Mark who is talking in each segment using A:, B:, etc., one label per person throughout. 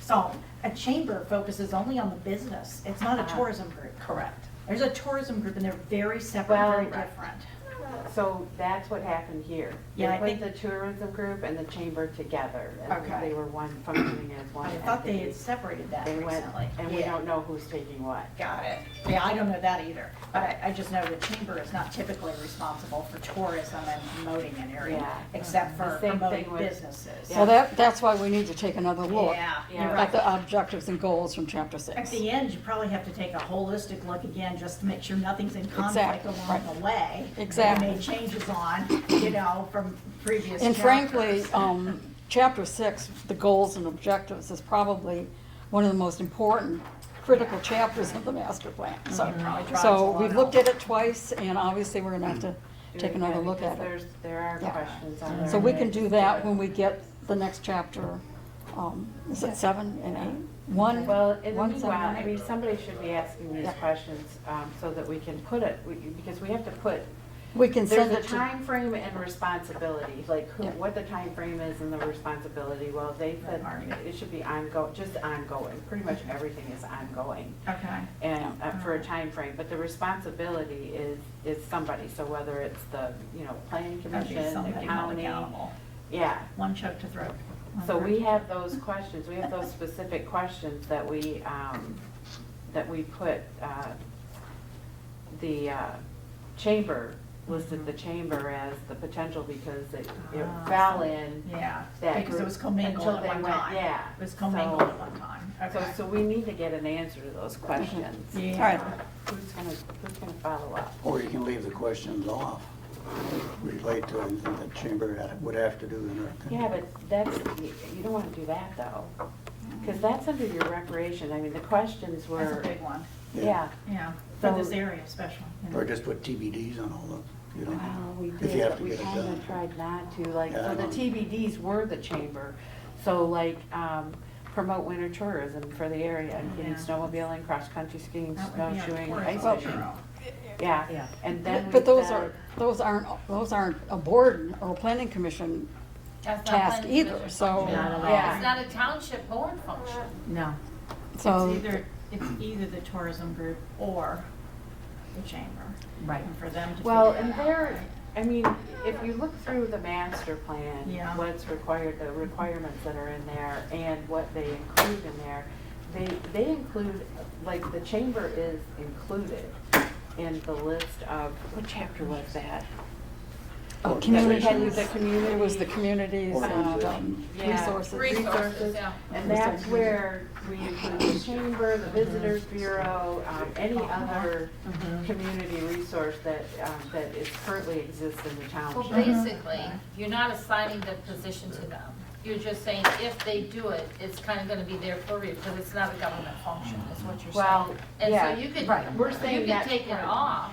A: So a chamber focuses only on the business. It's not a
B: Uh-huh.
A: tourism group.
B: Correct.
A: There's a tourism group and they're very separate,
B: Well,
A: very
B: right.
A: different.
B: So that's what happened here.
A: Yeah, I
B: They
A: think-
B: put the tourism group and the chamber together. and
A: Okay.
B: They were one functioning as one
A: I
B: entity.
A: thought they had separated that
B: They went,
A: recently.
B: and we
A: Yeah.
B: don't know who's taking what.
A: Got it. Yeah, I don't know that either, but I, I just know the chamber is not typically responsible for tourism and promoting an area,
B: Yeah. Mm-hmm.
A: except
B: The
A: for
B: same thing
A: promoting
B: with-
A: businesses.
B: Yeah.
C: Well, that, that's why we need to take another look
A: Yeah,
B: Yeah.
A: you're
C: at
A: right.
C: the objectives and goals from chapter
A: At
C: six.
A: the end, you probably have to take a holistic look again, just to make sure nothing's in conflict
C: Exactly,
A: along
C: right.
A: the way. that
C: Exactly.
A: We made changes on, you know, from previous
C: And frankly,
A: chapters.
C: um, chapter six, the goals and objectives is probably one of the most important critical chapters of the master plan, so.
A: It probably drives a
C: So
A: lot
C: we've looked
A: out.
C: at it twice and obviously we're gonna have to take another look
B: Because
C: at it.
B: there's- There are
C: Yeah.
B: questions on there.
C: So we can do that when we get the next chapter, um, is it seven and eight? One,
B: Well, in the
C: one, seven,
B: meanwhile, I
C: eight?
B: mean, somebody should be asking these
C: Yeah.
B: questions um, so that we can put it, we- because we have to put,
C: We can
B: there's
C: send
B: a
C: it to,
B: time frame and responsibility, like who,
C: Yeah.
B: what the time frame is and the responsibility. Well, they said
A: Right.
B: it should be ongoing, just ongoing. Pretty much everything is ongoing.
A: Okay,
B: and uh, for a
A: Mm-hmm.
B: time frame, but the responsibility is, is somebody, so whether it's the, you know, planning
A: that'd be
B: commission,
A: something
B: the
A: to hold
B: county.
A: accountable.
B: Yeah,
A: One choke to throat. one
B: so
A: throat
B: we
A: to
B: have those questions, we have those specific questions that we, um, that we put, uh, the, uh, chamber, listed the chamber as the potential because it, it
A: Mm-hmm. Ah,
B: fell
A: so-
B: in
A: Yeah,
B: that group.
A: because it was commingled
B: until
A: at
B: they
A: one
B: went-
A: time.
B: Yeah.
A: It was
B: so-
A: commingled at one time,
B: So,
A: okay.
B: so we need to get an answer to those questions.
C: all right,
A: Yeah,
B: Who's gonna, who's gonna follow up?
D: Or you can leave the questions off, relate to anything that chamber had- would have to do in their.
B: Yeah, but that's, you you don't wanna do that though, because that's under your recreation, I mean, the questions
A: that's
B: were,
A: a big one,
B: yeah.
A: yeah, for
B: So-
A: this area especially. yeah.
D: Or just put TBDs on all of them, you know?
B: Wow, we
D: If you
B: did,
D: have
B: but
D: to
B: we
D: get it
B: kinda
D: done.
B: tried not to, like,
D: Yeah,
B: so
D: I
B: the
D: know.
B: TBDs were the chamber, so like, um, promote winter tourism for the area, including
A: Oh, Yeah.
B: snowmobiling, cross-country skiing,
A: That would be our
B: snowshoeing, ice
A: tourism
B: fishing.
A: bureau.
B: Yeah, and then we
C: but those
B: said-
C: are, those aren't, those aren't a board or a planning commission
E: That's not
C: task
E: planning
C: either,
E: commission.
C: so,
E: It's
B: Yeah,
E: not a township board function.
B: no, Oh.
C: so.
A: It's either, it's either the tourism group or the chamber.
F: Right.
A: And for them to figure
B: Well, and
A: that out.
B: there, I mean, if you look through the master plan,
A: Yeah.
B: what's required, the requirements that are in there and what they include in there, they, they include, like, the chamber is included in the list of, what chapter was that?
C: Oh,
D: Or
C: communities.
B: Communities. The community.
C: It was the communities and um,
B: Yeah.
C: resources.
E: Resources, yeah.
B: And that's where we include the chamber, the visitors bureau, um, any other community resource that, um, that is currently exists in the
E: Well,
B: township.
E: basically, you're not assigning the position to them. You're just saying if they do it, it's kind of going to be their purview because it's not a government function, is what you're
B: Well,
E: saying. And
B: yeah,
E: so you could,
B: right. We're saying
E: you could
B: that's
E: take it
B: right.
E: off.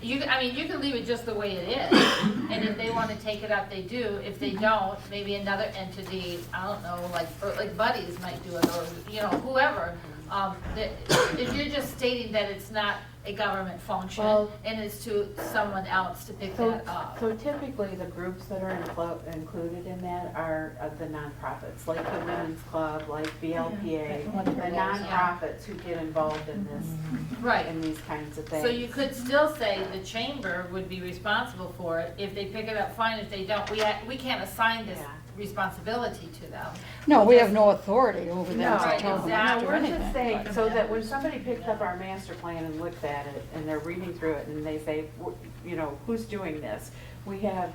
E: You, could- I mean, you could leave it just the way it is. And if they want to take it out, they do. If they don't, maybe another entity, I don't know, like, or like Buddies might do it or, you know, whoever. Um, that- If you're just stating that it's not a government function
B: Well-
E: and it's to someone else to pick
B: So,
E: that up.
B: so typically, the groups that are inclo- included in that are uh, the nonprofits, like the Women's Club, like BLPA,
A: Yeah.
B: the nonprofits who get involved in this,
E: Right.
B: in these kinds of things.
E: So you could still say the chamber would be responsible for it. If they pick it up, fine. If they don't, we, ha- we can't assign this
B: Yeah.
E: responsibility to them.
C: No, we have no authority over
B: No,
C: them to tell them
B: no,
C: not to do
B: we're just
C: anything.
B: saying, so that when somebody picks up our master plan and looks at it, and they're reading through it, and they say, "W- you know, who's doing this? We have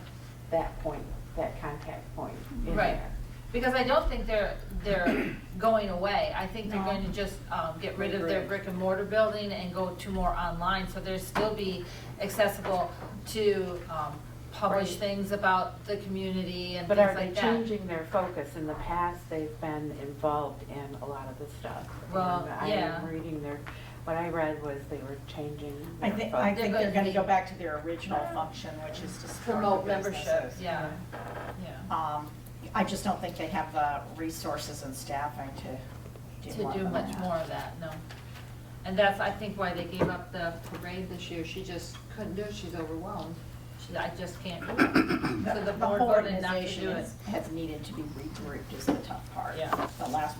B: that point, that contact point in
E: Right.
B: there.
E: Because I don't think they're, they're going away. I think they're
A: No.
E: going to just, um, get rid of their brick and mortar building and go to more online. So there'll still be accessible to, um, publish
B: Right.
E: things about the community and
B: But
E: things
B: are they
E: like that.
B: changing their focus? In the past, they've been involved in a lot of the stuff.
E: Well,
B: And I
E: yeah.
B: am reading their, what I read was they were changing
A: I
B: their
A: think, I
B: focus.
A: think they're gonna go back to their original function, which is to
E: Promote
A: support the
E: membership,
A: businesses.
E: yeah, yeah.
A: Um, I just don't think they have the resources and staffing to do
E: to
A: more
E: do
A: than
E: much
A: that.
E: more of that, no. And that's, I think, why they gave up the parade this year, she just couldn't do it, she's overwhelmed. She, I just can't do it. So the
A: The
E: board
A: whole
E: voted not to
A: organization
E: do it.
A: is- has needed to be regrouped is the tough part.
E: Yeah.
A: The last